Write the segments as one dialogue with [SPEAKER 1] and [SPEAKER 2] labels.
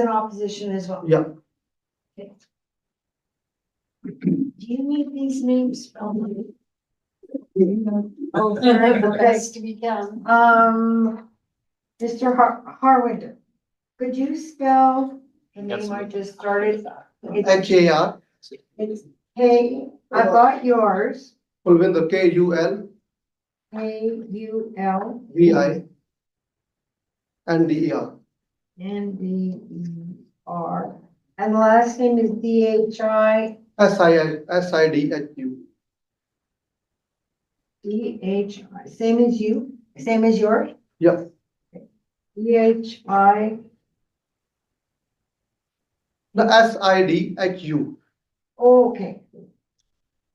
[SPEAKER 1] in opposition as well.
[SPEAKER 2] Yeah.
[SPEAKER 1] Okay. Do you need these names spelled?
[SPEAKER 3] Oh, The
[SPEAKER 1] Okay.
[SPEAKER 3] best we can.
[SPEAKER 1] Um, Mr. Har- Harwinder, could you spell the name I
[SPEAKER 4] Absolutely.
[SPEAKER 1] just started? It's
[SPEAKER 2] H A R,
[SPEAKER 1] K, I got yours,
[SPEAKER 2] Kulvinder, K U L
[SPEAKER 1] K U L
[SPEAKER 2] V I N D E R.
[SPEAKER 1] N D E R. And the last name is D H I,
[SPEAKER 2] S I I, S I D H U.
[SPEAKER 1] D H I, same as you, same as yours?
[SPEAKER 2] Yeah,
[SPEAKER 1] D H I,
[SPEAKER 2] the S I D H U.
[SPEAKER 1] okay.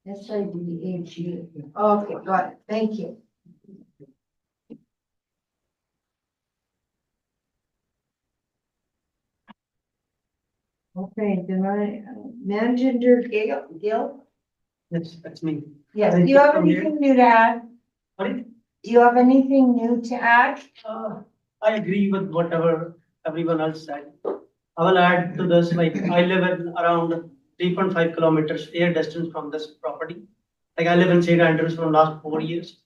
[SPEAKER 1] S I D H U, okay, got it, thank you. Okay, then I, uh, manager Gil, Gil,
[SPEAKER 5] That's, that's me.
[SPEAKER 1] yes, do you have
[SPEAKER 5] From here?
[SPEAKER 1] anything new to add?
[SPEAKER 5] Pardon?
[SPEAKER 1] Do you have anything new to add?
[SPEAKER 5] Uh, I agree with whatever everyone else said. I will add to this, like, I live in around three point five kilometers air distance from this property. Like, I live in St. Andrews for last four years,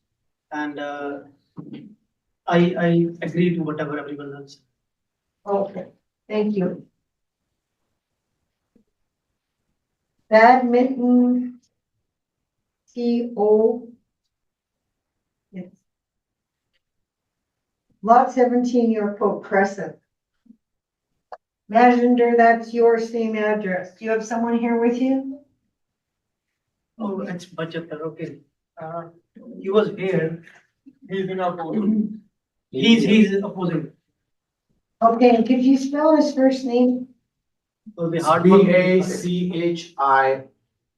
[SPEAKER 5] and, uh, I, I agree to whatever everyone else. said.
[SPEAKER 1] Okay, thank you. Badminton. T O. Yes. Lot seventeen York Code Crescent. Maginder, that's your same address. Do you have someone here with you?
[SPEAKER 5] Oh, it's budget, okay. Uh, he was here, he's been opposing. He's, he's opposing,
[SPEAKER 1] Okay, and could you spell his first name?
[SPEAKER 5] so the hard. work-
[SPEAKER 4] B A C H I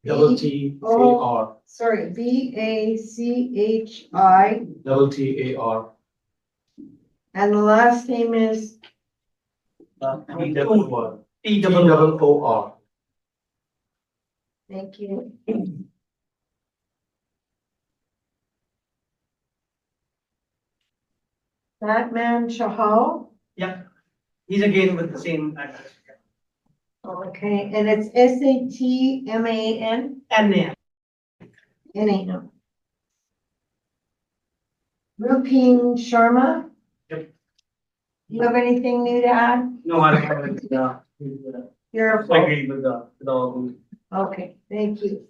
[SPEAKER 4] double T A R,
[SPEAKER 1] Sorry, B A C H I,
[SPEAKER 4] double T A R.
[SPEAKER 1] and the last name is
[SPEAKER 4] T
[SPEAKER 5] Uh,
[SPEAKER 4] double O-
[SPEAKER 5] T
[SPEAKER 4] T
[SPEAKER 5] double O.
[SPEAKER 4] double O R.
[SPEAKER 1] Thank you. Batman Chahal,
[SPEAKER 5] Yeah, he's again with the same address.
[SPEAKER 1] okay, and it's S A T M A N,
[SPEAKER 5] And then,
[SPEAKER 1] N A N. Rupin Sharma?
[SPEAKER 5] Yep.
[SPEAKER 1] You have anything new to add?
[SPEAKER 5] no, I haven't, yeah. uh, I
[SPEAKER 1] You're,
[SPEAKER 5] agree with the, with all.
[SPEAKER 1] okay, thank you.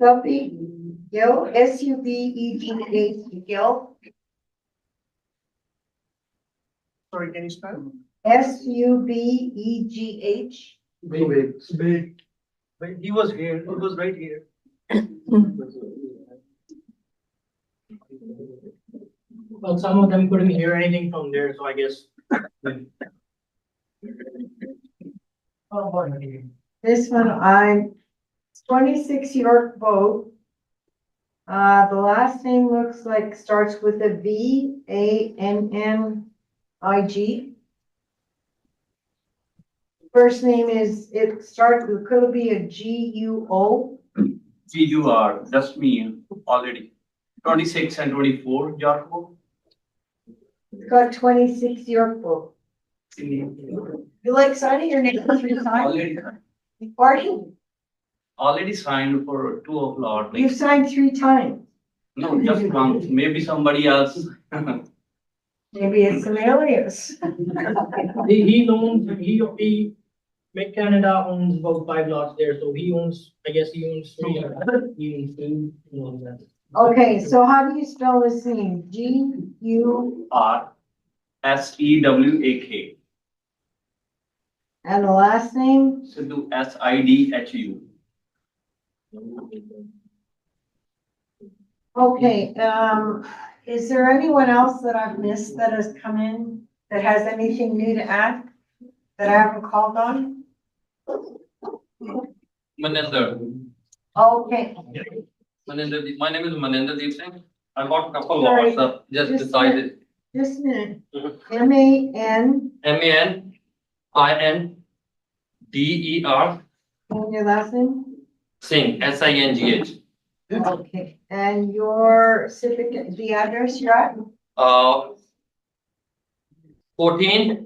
[SPEAKER 1] Subby Gill, S U B E D H Gill,
[SPEAKER 5] Sorry, can you spell?
[SPEAKER 1] S U B E G H.
[SPEAKER 2] Wait.
[SPEAKER 5] Big. But he was here, he was right here. Well, some of them couldn't hear anything from there, so I guess. Oh, boy.
[SPEAKER 1] This one, I'm twenty-six York Boat. Uh, the last name looks like starts with a V, A, N, N, I, G. First name is, it starts, it could be a G, U, O.
[SPEAKER 6] G U R, that's me already. Twenty-six and twenty-four, Jarko.
[SPEAKER 1] It's got twenty-six York Boat. You like signing your name three times?
[SPEAKER 6] Already,
[SPEAKER 1] Pardon?
[SPEAKER 6] already signed for two of lot,
[SPEAKER 1] You've
[SPEAKER 6] like,
[SPEAKER 1] signed three times.
[SPEAKER 6] no, just one, maybe somebody else.
[SPEAKER 1] Maybe it's an alias.
[SPEAKER 7] He, he owns, he, he, Mid Canada owns about five lots there, so he owns, I guess he owns three. He owns two, he owns that.
[SPEAKER 1] Okay, so how do you spell this name? G, U,
[SPEAKER 6] R S E W A K,
[SPEAKER 1] And the last name,
[SPEAKER 6] Sidhu, S I D H U.
[SPEAKER 1] okay, um, is there anyone else that I've missed that has come in that has anything new to add? That I haven't called on?
[SPEAKER 6] Manender,
[SPEAKER 1] Okay,
[SPEAKER 6] Manender, Deep- my name is Manender Deep Singh. I got couple
[SPEAKER 1] Sorry.
[SPEAKER 6] of WhatsApp, just
[SPEAKER 1] Just-
[SPEAKER 6] decided,
[SPEAKER 1] just a minute.
[SPEAKER 6] Mhm.
[SPEAKER 1] M A N,
[SPEAKER 6] M A N I N D E R
[SPEAKER 1] and your last name?
[SPEAKER 6] Singh, S I N G H.
[SPEAKER 1] Okay, and your civic, the address you're at?
[SPEAKER 6] Uh, fourteen